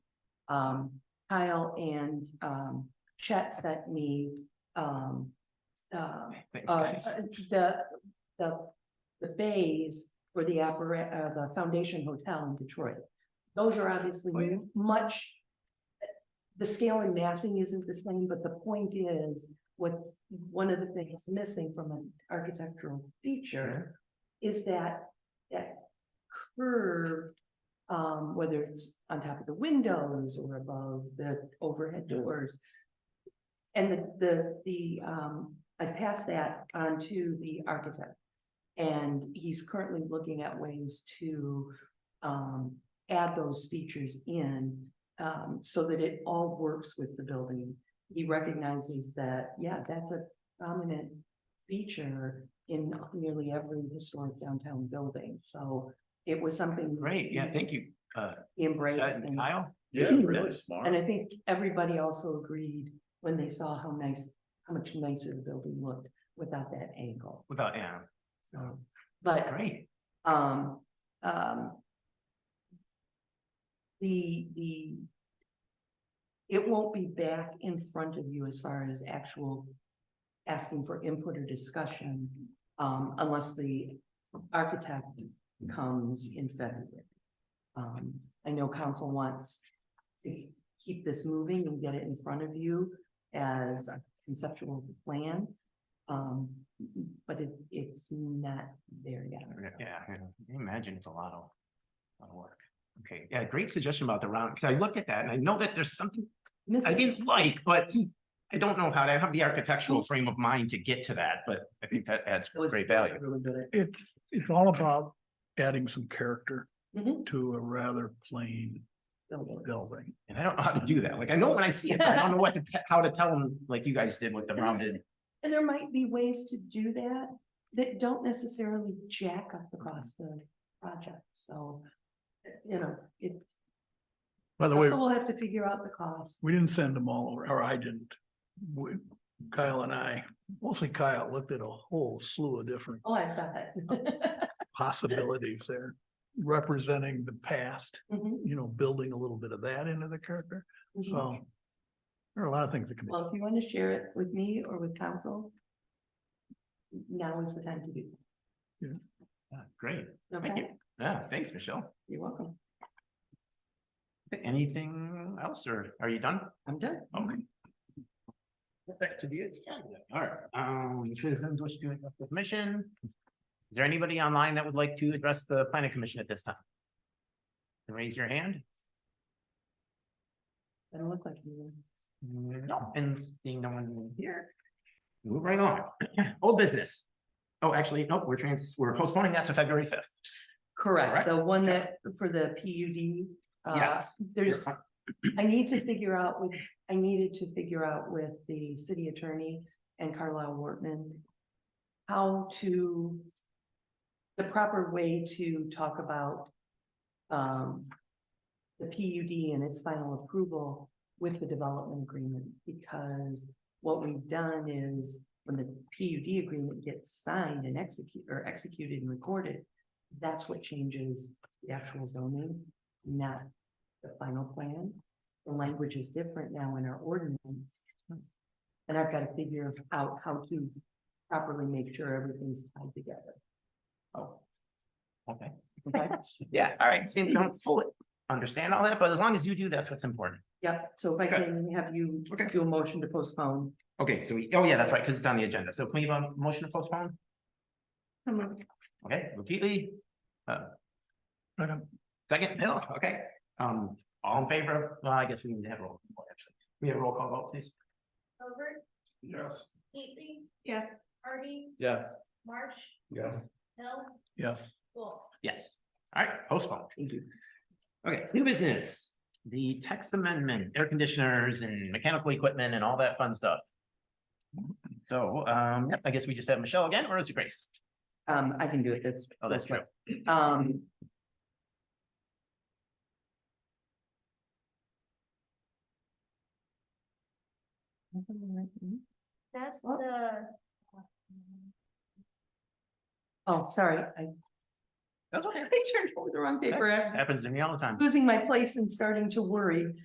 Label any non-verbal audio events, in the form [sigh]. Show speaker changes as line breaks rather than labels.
um, Kyle and, um, Chet sent me, um, uh,
Thanks,
uh,
guys.
the, the, the bays for the appara- uh, the Foundation Hotel in Detroit. Those are obviously
Oh, yeah.
much, the scale and massing isn't the same, but the point is, what, one of the things missing from an architectural feature is that, that curved, um, whether it's on top of the windows or above the overhead doors. And the, the, the, um, I passed that on to the architect. And he's currently looking at ways to, um, add those features in, um, so that it all works with the building. He recognizes that, yeah, that's a prominent feature in nearly every historic downtown building, so it was something.
Great, yeah, thank you, uh,
he Embraced.
Chad
and-
and Kyle.
Yeah,
Mhm.
really smart.
and I think everybody also agreed when they saw how nice, how much nicer the building looked without that angle.
Without Anna,
So, but,
great.
um, um. The, the. It won't be back in front of you as far as actual asking for input or discussion, um, unless the architect comes in February. Um, I know council wants to keep this moving and get it in front of you as a conceptual plan. Um, but it, it's not there yet. so.
Yeah, I can imagine it's a lot of, lot of work. Okay, yeah, great suggestion about the round, because I looked at that and I know that there's something I
Missing.
didn't like, but I don't know how to, I have the architectural frame of mind to get to that, but I think that adds
It was-
great
it was
value.
Really good at.
It's, it's all about adding some character
Mhm.
to a rather plain
building.
building.
And I don't know how to do that. Like, I know when I see it, but I don't know what to, te- how to tell them, like you guys did with the rounded.
And there might be ways to do that that don't necessarily jack up the cost of the project, so. You know, it,
By the way,
so we'll have to figure out the cost.
we didn't send them all over, or I didn't. We- Kyle and I, mostly Kyle, looked at a whole slew of different
Oh, I've got it.
Oh.
[laughs]
possibilities there. Representing the past,
Mhm,
you know, building a little bit of that into the character.
mhm.
So there are a lot of things that can be.
Well, if you want to share it with me or with council. Now is the time to do.
Yeah, Great,
that.
Thank you.
Okay,
yeah, thanks, Michelle.
you're welcome.
Anything else or are you done?
I'm done.
Okay. Back to the agenda. All right, um, citizens wish to address the commission. Is there anybody online that would like to address the planning commission at this time? Then Raise your hand.
Doesn't look like you.
No, and seeing no one here. Move right on. [clears throat] Old business. Oh, actually, nope, we're trans, we're postponing that to February fifth.
Correct,
Correct?
the one that for the P U D. uh,
Yes.
There's, I need to figure out with, I needed to figure out with the city attorney and Carlisle Wortman. How to, the proper way to talk about. Um. The P U D and its final approval with the development agreement, because what we've done is. When the P U D agreement gets signed and execute, or executed and recorded, that's what changes the actual zoning, not the final plan. The language is different now in our ordinance. And I've got to figure out how to properly make sure everything's tied [laughs] together.
Oh. Okay,
Okay,
yeah, all right, same, don't fully understand all that, but as long as you do, that's what's important.
yep, so if I
Okay.
can have you
Okay.
do a motion to postpone.
Okay, so we, oh yeah, that's right, because it's on the agenda. So can we have a motion to postpone? Okay, repeatedly. Uh,
Second.
Second, Bill, okay. Um, all in favor? Well, I guess we need to have a roll. call, actually. We have a roll call vote, please.
Over,
Yes.
Casey,
Yes.
Harvey,
Yes.
Marsh,
Yes.
Hill,
Yes.
Wolf.
Yes. All right, postpone. Thank you. Okay, new business, the text amendment, air conditioners and mechanical equipment and all that fun stuff. So, um, yep, I guess we just have Michelle again, or is it Grace?
Um, I can do it, that's.
Oh, that's true.
Um. hmm?
That's
What?
the.
Oh, sorry, I
That's
[laughs]
okay.
I turned over the wrong paper. I'm
Happens to me all the time.
losing my place and starting to worry.